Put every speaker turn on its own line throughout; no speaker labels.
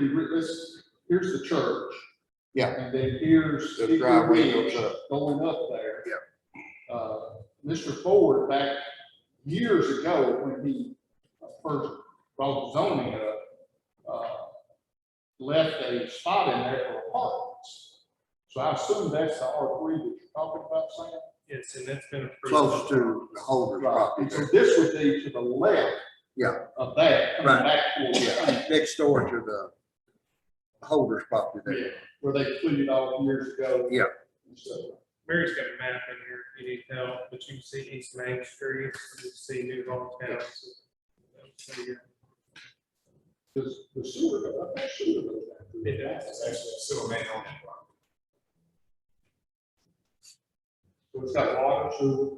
you, re- this, here's the church.
Yeah.
And then here's.
The
Hickory
driveway
Ridge
goes up.
Going up there. Yeah. Uh, Mr. Ford, back years ago, when he first brought zoning up, uh, left a spot in there for apartments. So I assume that's the R three that you're talking about, Sam?
Yes, and that's been approved.
close to the Holder's
Right,
property,
and so this would be to the left.
Yeah.
Of that, coming
Right.
back towards,
Yeah, next door to the Holder's property there.
yeah, where they cleaned it off years ago.
Yeah.
And So,
Mary's got a map in here, if you need help, but you can see East Main Street, you can see New Hometown.
does the sewer, go- I think sewer goes back to the-
It does.
sewer main on it.
So it's got water, sewer,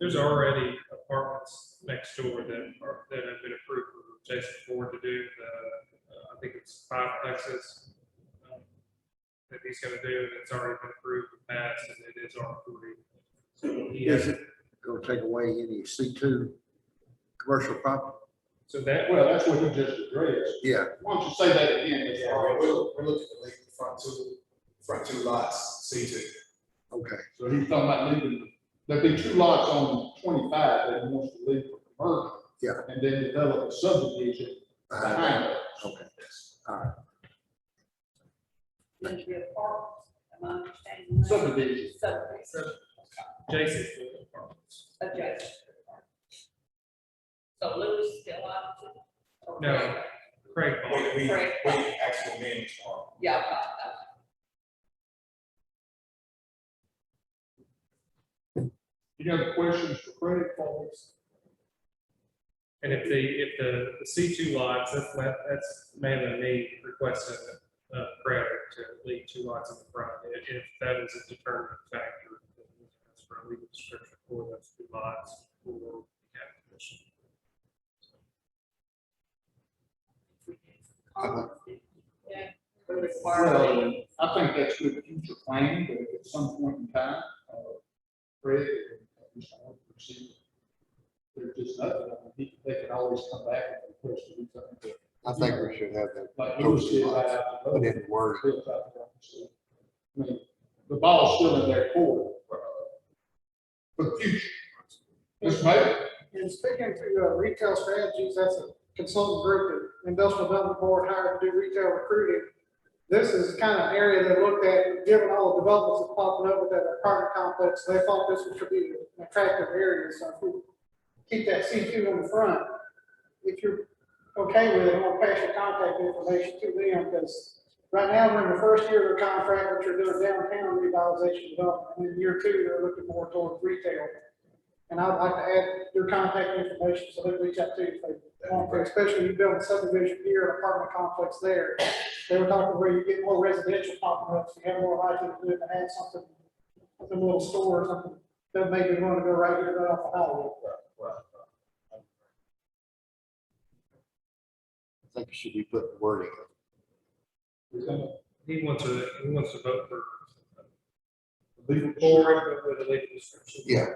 There's already apartments next door that are, that have been approved for Jason Ford to do, the, uh, I think it's five plexes. um, That he's gonna do, and it's already been approved and passed, and it is R three. So he
Is
has,
it gonna take away any C two commercial property?
so that,
well, that's what he just addressed.
Yeah,
Why don't you say that again? Mr.
Yeah, we're,
Harris?
we're looking at like the front two, front two lots, C two.
okay,
So he's talking about leaving, there'd be two lots on twenty-five that he wants to leave for commercial.
Yeah.
And then develop a subdivision
uh,
behind it.
okay.
going to be a park, am I understanding? that?
Subdivision.
Subdivision,
Jason Ford apartments.
adjacent. So Louis still up? to- or-
No. Craig Ball.
We, we,
Right.
we actually manage our.
Yeah, uh, uh,
You got any questions for Craig, Paul?
And if the, if the, the C two lots, that's, that- that's mainly me requesting a credit to leave two lots in the front. If- If that is a determinant factor, then that's for a legal description for those two lots for the application.
yeah, we require the-
I think that's good future planning, but at some point in time, uh, Fred, and Mr. Hunt proceed. There's just nothing, I mean, he- they could always come back and request to do something, but
I think we should have that
like Louis did right after
put
voting,
in word.
Bill talked about it, so, I mean, the ball's still in their court, uh, for the future. Mr. Mayor,
And speaking to uh, retail strategies, that's a consultant group that Industrial Development Board hired to do retail recruiting. This is kind of an area they looked at, given all the developments that's popping up with that apartment complex, they thought this would be an attractive area, so if we keep that C two in the front, if you're okay with it, I'll pass your contact information to them, because right now, we're in the first year of the contract, which are doing downtown revitalization development, and in year two, they're looking more towards retail. And I'd like to add your contact information, so they reach out to you if they want to, especially you build a subdivision here, an apartment complex there. They were talking where you get more residential popping up, so you have more likely to do it, and add something, something little store or something, that maybe you want to go right here, right off the highway.
I think it should be put in wording.
He wants to, he wants to vote for uh,
legal
forward with a legal description.
Yeah,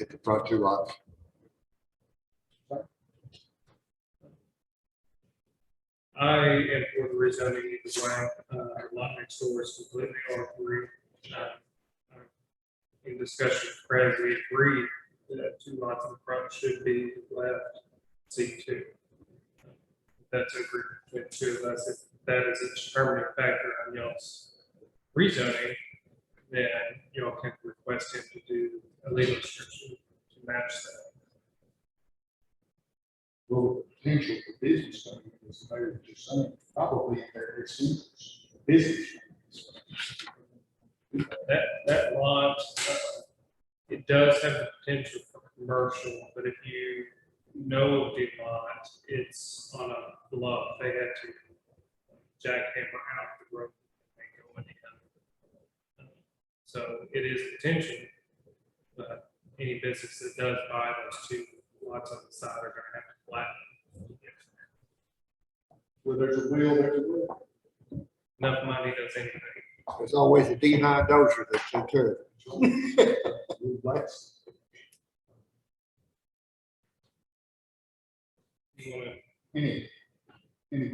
at the front two lots.
I am for the rezoning as well. Uh, lot next door is completely R three. uh, In discussion, Brad, we agreed that two lots in the front should be left C two. That's agreed between the two of us. If that is a determining factor on y'all's rezoning, then y'all can request him to do a legal description to match that.
Well, the potential for business coming in is very interesting, probably in their best interest, business.
That, that lot, uh, it does have the potential for commercial, but if you know of the lot, it's on a bluff, they had to jackhammer out the road and go in the other. So it is potential, but any business that does buy those two lots on the side are gonna have to flatten.
Where there's a will, there's a way.
Enough money does anything.
There's always a D nine dozer that's in turn.
You wanna
Any, any